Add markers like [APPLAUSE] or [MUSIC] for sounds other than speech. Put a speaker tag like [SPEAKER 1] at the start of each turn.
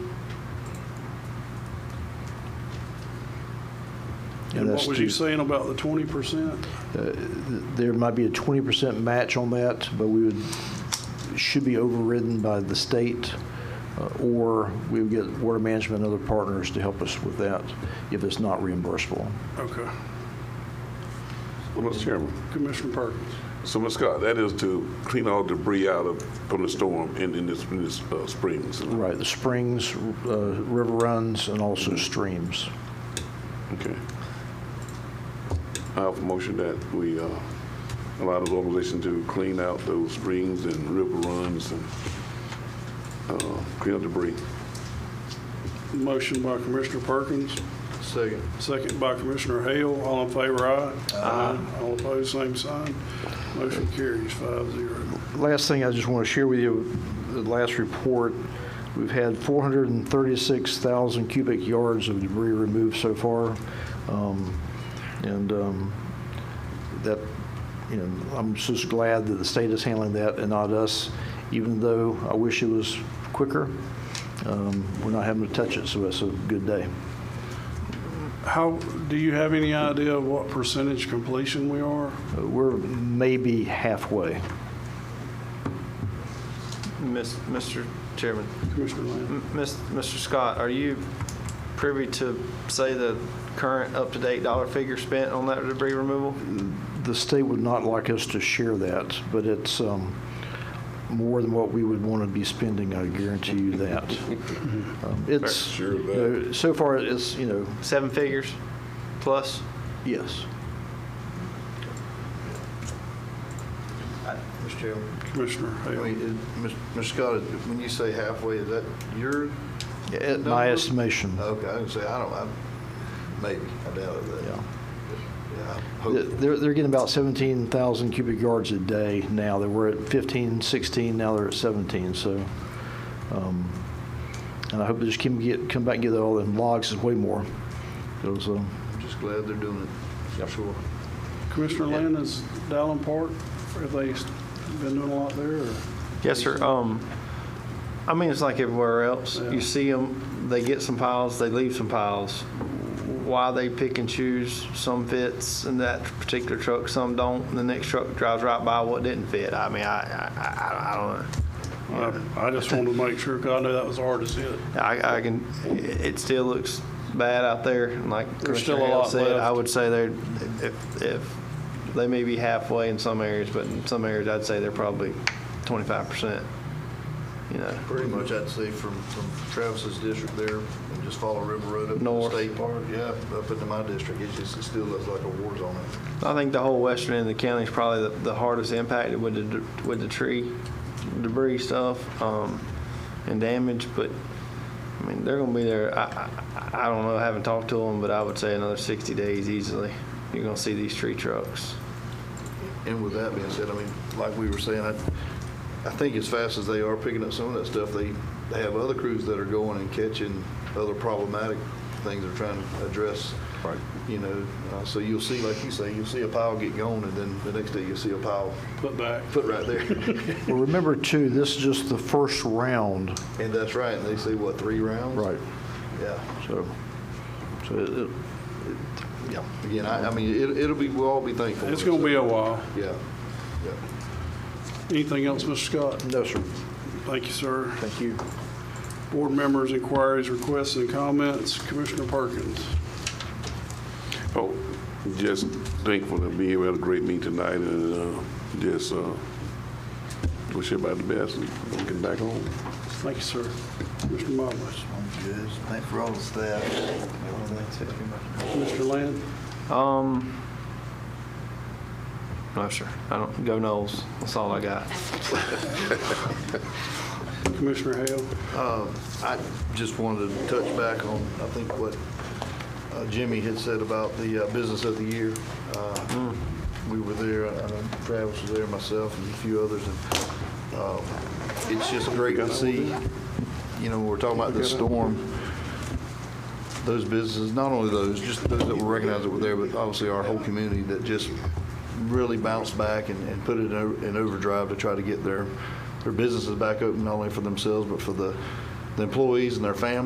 [SPEAKER 1] And
[SPEAKER 2] And
[SPEAKER 1] what
[SPEAKER 2] that's
[SPEAKER 1] was he
[SPEAKER 2] to-
[SPEAKER 1] saying about the 20%?
[SPEAKER 2] There might be a 20% match on that, but we would, should be overridden by the state, uh, or we would get water management and other partners to help us with that if it's not reimbursable.
[SPEAKER 1] Okay.
[SPEAKER 3] Well, Mr. Chairman,
[SPEAKER 1] Commissioner Perkins.
[SPEAKER 3] so Ms. Scott, that is to clean all debris out of, from the storm in, in this, in this uh, springs.
[SPEAKER 2] Right, the springs, uh, river runs, and also streams.
[SPEAKER 3] Okay. I have a motion that we uh, allow this organization to clean out those springs and river runs and uh, clean up debris.
[SPEAKER 1] Motion by Commissioner Perkins. Second. Second by Commissioner Hale. All in favor, aye. Aye. All opposed, same sign. Motion carries five zero.
[SPEAKER 2] Last thing I just want to share with you, the last report, we've had 436,000 cubic yards of debris removed so far. Um, And um, that, you know, I'm just glad that the state is handling that and not us, even though I wish it was quicker. Um, We're not having to touch it, so it's a good day.
[SPEAKER 1] How, do you have any idea of what percentage completion we are?
[SPEAKER 2] Uh, We're maybe halfway.
[SPEAKER 4] Miss- Mr. Chairman,
[SPEAKER 1] Commissioner Lane?
[SPEAKER 4] M- Miss- Mr. Scott, are you privy to, say, the current up-to-date dollar figure spent on that debris removal?
[SPEAKER 2] The state would not like us to share that, but it's um, more than what we would want to be spending, I guarantee you that. Um, It's,
[SPEAKER 3] Sure of
[SPEAKER 2] you know, so far, it's, you know,
[SPEAKER 4] Seven figures plus?
[SPEAKER 2] yes.
[SPEAKER 5] Mr. Chairman,
[SPEAKER 1] Commissioner
[SPEAKER 5] I
[SPEAKER 1] Hale?
[SPEAKER 5] mean, it- Ms. Ms. Scott, it- when you say halfway, is that your,
[SPEAKER 2] At my
[SPEAKER 5] Number-
[SPEAKER 2] estimation,
[SPEAKER 5] okay, I didn't say, I don't, I, maybe, I doubt it, but,
[SPEAKER 2] yeah.
[SPEAKER 5] yeah, I hope,
[SPEAKER 2] They're, they're getting about 17,000 cubic yards a day now. They were at 15, 16, now they're at 17, so. um, And I hope they just can get, come back and get all them logs, it's way more. It was, um,
[SPEAKER 5] I'm just glad they're doing it, for sure.
[SPEAKER 1] Commissioner Lane, is Dallin Park, have they been doing a lot there? or-
[SPEAKER 4] Yes, sir. Um, I mean, it's like everywhere else.
[SPEAKER 1] Yeah.
[SPEAKER 4] You see them, they get some piles, they leave some piles. Why they pick and choose, some fits in that particular truck, some don't, and the next truck drives right by what didn't fit. I mean, I, I, I- I don't know.
[SPEAKER 1] I I just wanted to make sure, because I know that was hard as hit.
[SPEAKER 4] I, I can, it still looks bad out there. and Like
[SPEAKER 1] There's still
[SPEAKER 4] Commissioner
[SPEAKER 1] a
[SPEAKER 4] Hale
[SPEAKER 1] lot
[SPEAKER 4] said, I
[SPEAKER 1] left.
[SPEAKER 4] would say they're, if, if, they may be halfway in some areas, but in some areas, I'd say they're probably twenty-five percent. You know,
[SPEAKER 5] Pretty much, I'd say from, from Travis's district there, and just follow River Road up to the
[SPEAKER 4] North.
[SPEAKER 5] state park, yeah, up into my district, it just, it still looks like a war zone.
[SPEAKER 4] I think the whole western end of the county is probably the, the hardest impacted with the, with the tree debris stuff, um, and damage, but, I mean, they're gonna be there, I, I, I don't know, I haven't talked to them, but I would say another sixty days easily. You're gonna see these tree trucks.
[SPEAKER 5] And with that being said, I mean, like we were saying, I, I think as fast as they are picking up some of that stuff, they, they have other crews that are going and catching other problematic things they're trying to address. Right. You know, uh, so you'll see, like you say, you'll see a pile get gone, and then the next day you'll see a pile
[SPEAKER 1] Put back.
[SPEAKER 5] put
[SPEAKER 2] [LAUGHS]
[SPEAKER 5] right there.
[SPEAKER 2] well, remember too, this is just the first round.
[SPEAKER 5] And that's right, and they say, what, three rounds? Yeah.
[SPEAKER 2] So, so it- it,
[SPEAKER 5] Yeah. Again, I, I mean, it, it'll be, we'll all be thankful.
[SPEAKER 1] It's going to be a while.
[SPEAKER 5] Yeah, yeah.
[SPEAKER 1] Anything else, Mr. Scott?
[SPEAKER 2] no, sir,
[SPEAKER 1] Thank you, sir.
[SPEAKER 2] thank you.
[SPEAKER 1] Board members' inquiries, requests, and comments. Commissioner Perkins.
[SPEAKER 3] Oh, just thankful to be here. We had a great meeting tonight and uh, just uh, wish everybody the best and get back home.
[SPEAKER 1] Thank you, sir. Commissioner Mobley.
[SPEAKER 5] Thanks for all the staff.
[SPEAKER 1] Mr. Land.
[SPEAKER 4] Um, no, sir. I don't go Knowles. That's all I got.
[SPEAKER 1] Commissioner Hale.
[SPEAKER 5] Uh, I just wanted to touch back on, I think, what uh, Jimmy had said about the uh, Business of the Year. Uh, We were there, I know Travis was there, myself, and a few others, and uh, it's just great to see, you know, we're talking about the storm, those businesses, not only those, just those that were recognized that were there, but obviously our whole community that just really bounced back and, and put it in o- in overdrive to try to get their, their businesses back open, not only for themselves, but for the, the employees and their families.